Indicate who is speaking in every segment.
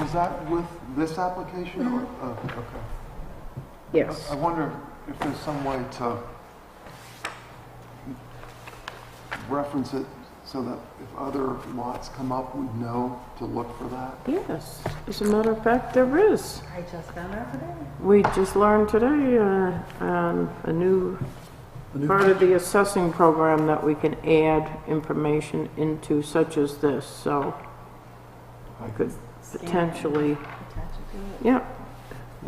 Speaker 1: Is that with this application or, oh, okay. I
Speaker 2: Yes.
Speaker 1: wonder if there's some way to reference it so that if other lots come up, we know to look for that?
Speaker 2: Yes. As a matter of fact, there is.
Speaker 3: I just found out today.
Speaker 2: We just learned today uh, um, a new part of the assessing program that we can add information into such as this, so I could potentially,
Speaker 3: Attach it to it.
Speaker 2: yeah.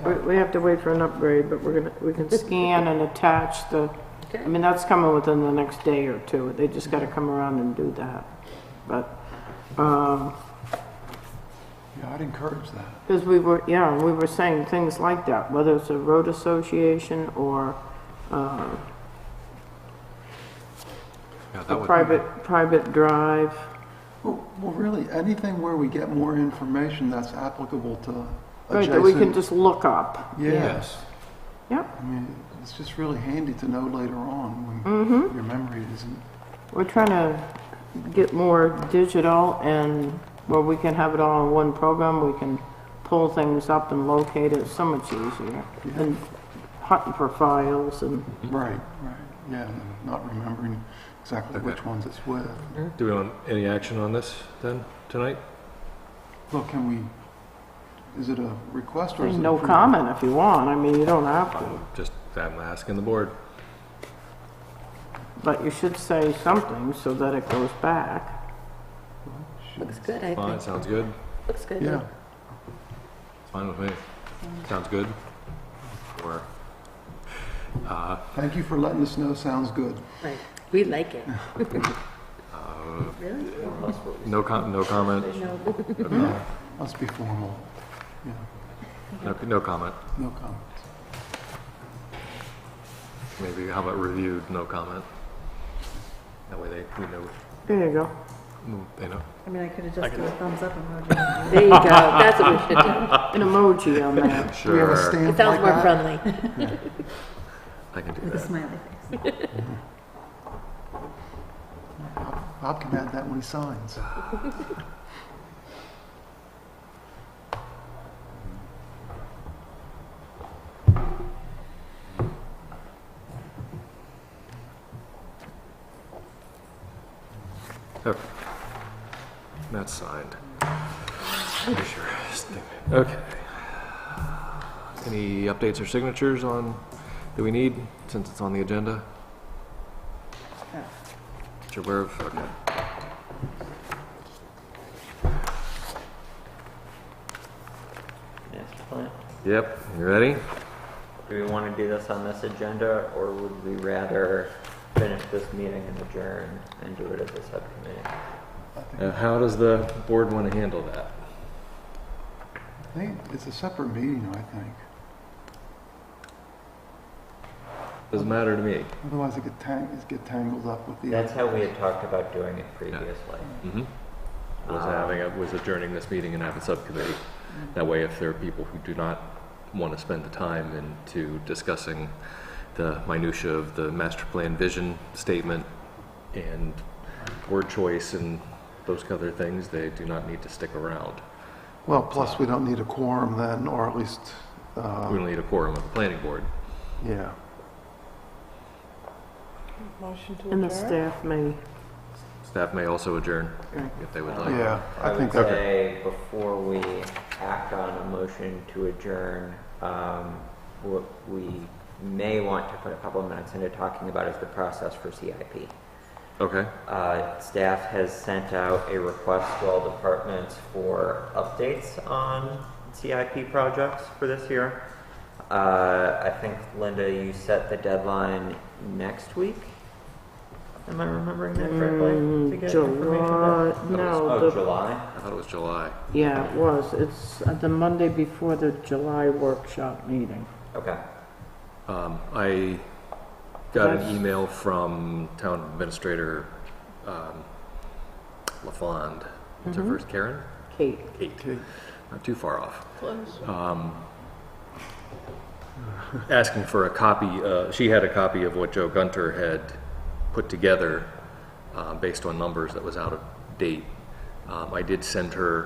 Speaker 2: We- We have to wait for an upgrade, but we're gonna, we can scan and attach the, I mean, that's coming within the next day or two. They just gotta come around and do that. But, um,
Speaker 1: Yeah, I'd encourage that.
Speaker 2: Because we were, yeah, we were saying things like that, whether it's a road association or uh,
Speaker 4: Yeah, that
Speaker 2: a
Speaker 4: would-
Speaker 2: private, private drive.
Speaker 1: Well, well, really, anything where we get more information that's applicable to
Speaker 2: Right, that we can
Speaker 1: adjacent.
Speaker 2: just look up.
Speaker 1: Yeah,
Speaker 4: Yes.
Speaker 2: Yep,
Speaker 1: I mean, it's just really handy to know later on
Speaker 2: mm-hmm.
Speaker 1: when your memory isn't.
Speaker 2: We're trying to get more digital and where we can have it all in one program, we can pull things up and locate it so much easier.
Speaker 1: Yeah.
Speaker 2: And hunting for files and,
Speaker 1: Right, right, yeah, and not remembering exactly
Speaker 4: Okay.
Speaker 1: which ones it's with.
Speaker 4: Do we want any action on this then, tonight?
Speaker 1: Well, can we, is it a request or is it?
Speaker 2: no
Speaker 1: approval?
Speaker 2: comment if you want, I mean, you don't have to.
Speaker 4: I'm Just, I'm asking the board.
Speaker 2: But you should say something so that it goes back.
Speaker 3: Looks good, I
Speaker 4: Fine,
Speaker 3: think.
Speaker 4: sounds good.
Speaker 3: Looks good.
Speaker 1: Yeah,
Speaker 4: It's Fine with me. Sounds good. Or, uh,
Speaker 1: thank you for letting us know, sounds good.
Speaker 3: Right. We like it.
Speaker 4: uh,
Speaker 3: Really?
Speaker 4: no com, no comment?
Speaker 3: No.
Speaker 4: No,
Speaker 1: Let's be formal. Yeah,
Speaker 4: no- no comment.
Speaker 1: no comments.
Speaker 4: Maybe how about reviewed, no comment? That way they, we know,
Speaker 2: There you go.
Speaker 4: they know.
Speaker 3: I mean, I could have just done a thumbs up emoji.
Speaker 2: There you go, that's what we should do. An emoji on that.
Speaker 1: We have a
Speaker 4: Sure,
Speaker 1: stamp
Speaker 3: It
Speaker 1: like
Speaker 3: sounds more
Speaker 1: that?
Speaker 3: friendly.
Speaker 4: I can do
Speaker 3: With a
Speaker 4: that.
Speaker 3: smiley face.
Speaker 1: Bob- Bob can add that when he signs.
Speaker 4: Okay. Oh. That's signed. Pretty sure. Okay. Any updates or signatures on, that we need, since it's on the agenda? That you're aware of? Okay.
Speaker 5: Master plan.
Speaker 4: Yep, you ready?
Speaker 5: Do we want to do this on this agenda, or would we rather finish this meeting and adjourn and do it at the subcommittee?
Speaker 4: Uh, How does the board want to handle that?
Speaker 1: I think it's a separate meeting, I think.
Speaker 4: Doesn't matter to me.
Speaker 1: Otherwise it get tang, it get tangled up with the.
Speaker 5: That's how we had talked about doing it previously.
Speaker 4: Mm-hmm. Was
Speaker 5: Um,
Speaker 4: having, a- was adjourning this meeting and have a subcommittee. That way, if there are people who do not want to spend the time into discussing the minutia of the master plan vision statement and word choice and those other things, they do not need to stick around.
Speaker 1: Well, plus we don't need a quorum then, or at least, uh,
Speaker 4: We don't need a quorum of the planning board.
Speaker 1: yeah.
Speaker 2: And the staff may,
Speaker 4: Staff may also adjourn if they would like.
Speaker 1: Yeah, I think
Speaker 5: would
Speaker 1: that,
Speaker 5: say before we act on a motion to adjourn, um, what we may want to put a couple of minutes into talking about is the process for CIP.
Speaker 4: Okay,
Speaker 5: Uh, Staff has sent out a request to all departments for updates on CIP projects for this year. Uh, I think, Linda, you set the deadline next week? Am I remembering that correctly? To
Speaker 2: Mm,
Speaker 5: get information
Speaker 2: July,
Speaker 5: back?
Speaker 2: no,
Speaker 5: Oh,
Speaker 2: the,
Speaker 5: July?
Speaker 4: I thought it was July.
Speaker 2: yeah, it was, it's uh, the Monday before the July workshop meeting.
Speaker 5: Okay.
Speaker 4: Um, I got
Speaker 2: Yes.
Speaker 4: an email from town administrator, um, LaFond, what's her first, Karen?
Speaker 2: Kate,
Speaker 4: Kate.
Speaker 1: Kate.
Speaker 4: Not too far off. Um, Asking for a copy, uh, she had a copy of what Joe Gunter had put together, uh, based on numbers that was out of date. Um, I did send her